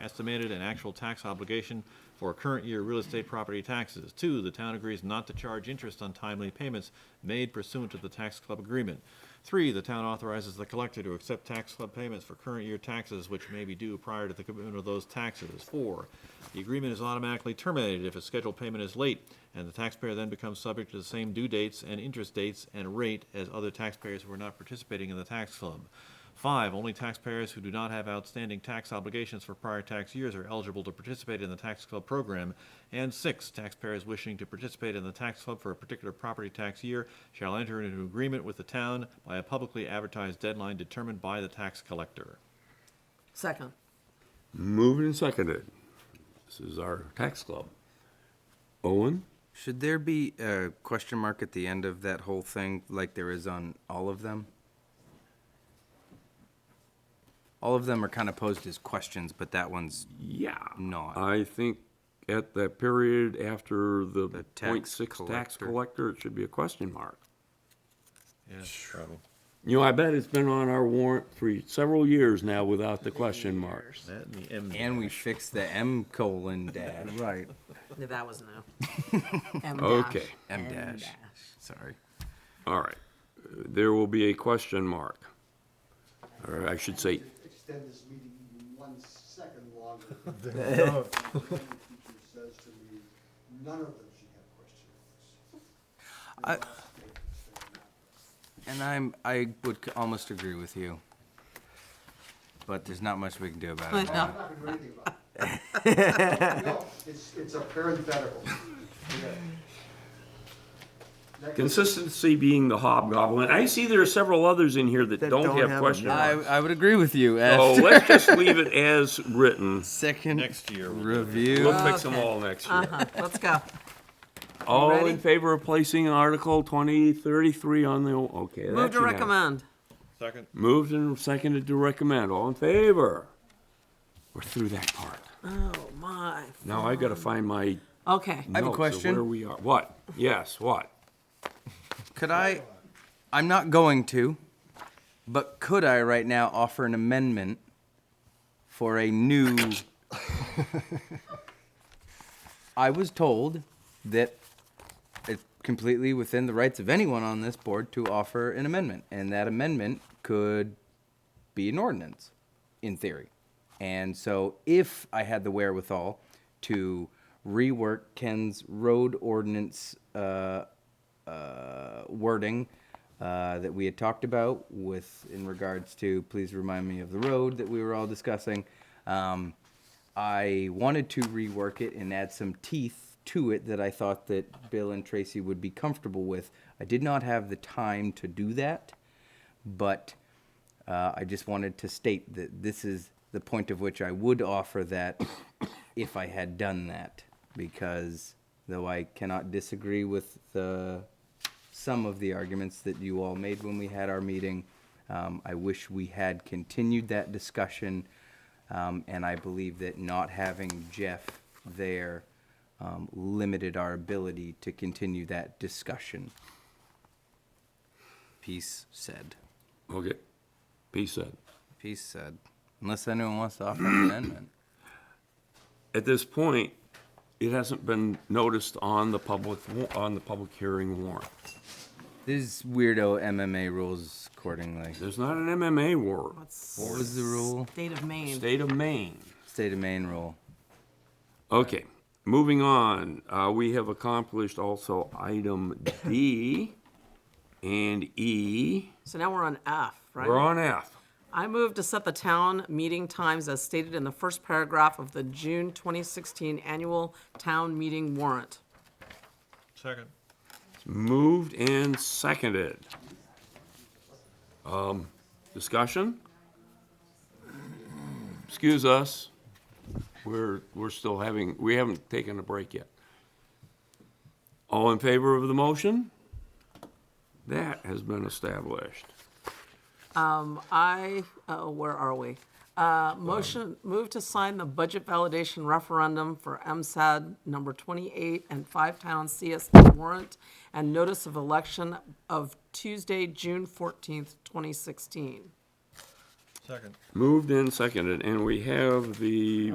estimated and actual tax obligation for current year real estate property taxes. Two, the town agrees not to charge interest on timely payments made pursuant to the tax club agreement. Three, the town authorizes the collector to accept tax club payments for current year taxes which may be due prior to the commitment of those taxes. Four, the agreement is automatically terminated if a scheduled payment is late, and the taxpayer then becomes subject to the same due dates and interest dates and rate as other taxpayers who are not participating in the tax club. Five, only taxpayers who do not have outstanding tax obligations for prior tax years are eligible to participate in the tax club program. And six, taxpayers wishing to participate in the tax club for a particular property tax year shall enter into an agreement with the town by a publicly advertised deadline determined by the tax collector. Second. Moved and seconded. This is our tax club. Owen? Should there be a question mark at the end of that whole thing, like there is on all of them? All of them are kind of posed as questions, but that one's Yeah. Not. I think at that period after the point tax six tax collector. collector, it should be a question mark. Yeah, probably. You know, I bet it's been on our warrant for several years now without the question marks. That and the M. and we fixed the M colon dash. Right. No, that was no. M dash. Okay. M dash. Sorry. All right. There will be a question mark. Or I should say, extend this meeting even one second longer. The teacher says to me, none of them should have question marks. I- They're all statements, they're not. And I'm I would c- almost agree with you. But there's not much we can do about it. No. I'm not gonna do anything about it. No, it's, it's a parenthetical. Yeah. That goes- consistency being the hobgoblin. I see there are several others in here that don't have question I, marks. I would agree with you. So As let's just leave it as written. second Next year we'll do it. review. We'll fix them Okay. all next year. Let's go. All Ready? in favor of placing Article 2033 on the, okay. Move that's to unanimous. recommend. Second? Moved and seconded to recommend. All in favor? We're through that part. Oh, my. Now I gotta find my Okay. have a notes of question. where we are. What? Yes, what? Could I, I'm not going to, but could I right now offer an amendment for a new? I was told that it's completely within the rights of anyone on this board to offer an amendment, and that amendment could be an ordinance, in theory. And so if I had the wherewithal to rework Ken's road ordinance, uh, uh, wording uh, that we had talked about with in regards to please remind me of the road that we were all discussing. Um, I wanted to rework it and add some teeth to it that I thought that Bill and Tracy would be comfortable with. I did not have the time to do that, but uh, I just wanted to state that this is the point of which I would offer that if I had done that, because though I cannot disagree with the, some of the arguments that you all made when we had our meeting, um, I wish we had continued that discussion. Um, and I believe that not having Jeff there um, limited our ability to continue that discussion. Peace said. Okay. Peace said. Peace said. Unless anyone wants to offer an amendment. At this point, it hasn't been noticed on the public, wa- on the public hearing warrant. These weirdo MMA rules accordingly. There's not an MMA warrant. What's What was the rule? state of Maine? State of Maine. State of Maine rule. Okay, moving on, uh, we have accomplished also item D and E. So now we're on F, right? We're on F. I move to set the town meeting times as stated in the first paragraph of the June 2016 annual town meeting warrant. Second. Moved and seconded. Um, discussion? Excuse us, we're, we're still having, we haven't taken a break yet. All in favor of the motion? That has been established. I, uh, where are we? Uh, motion, move to sign the budget validation referendum for MSAD number twenty-eight and five town CSD warrant and notice of election of Tuesday, June fourteenth, twenty sixteen. Second. Moved and seconded, and we have the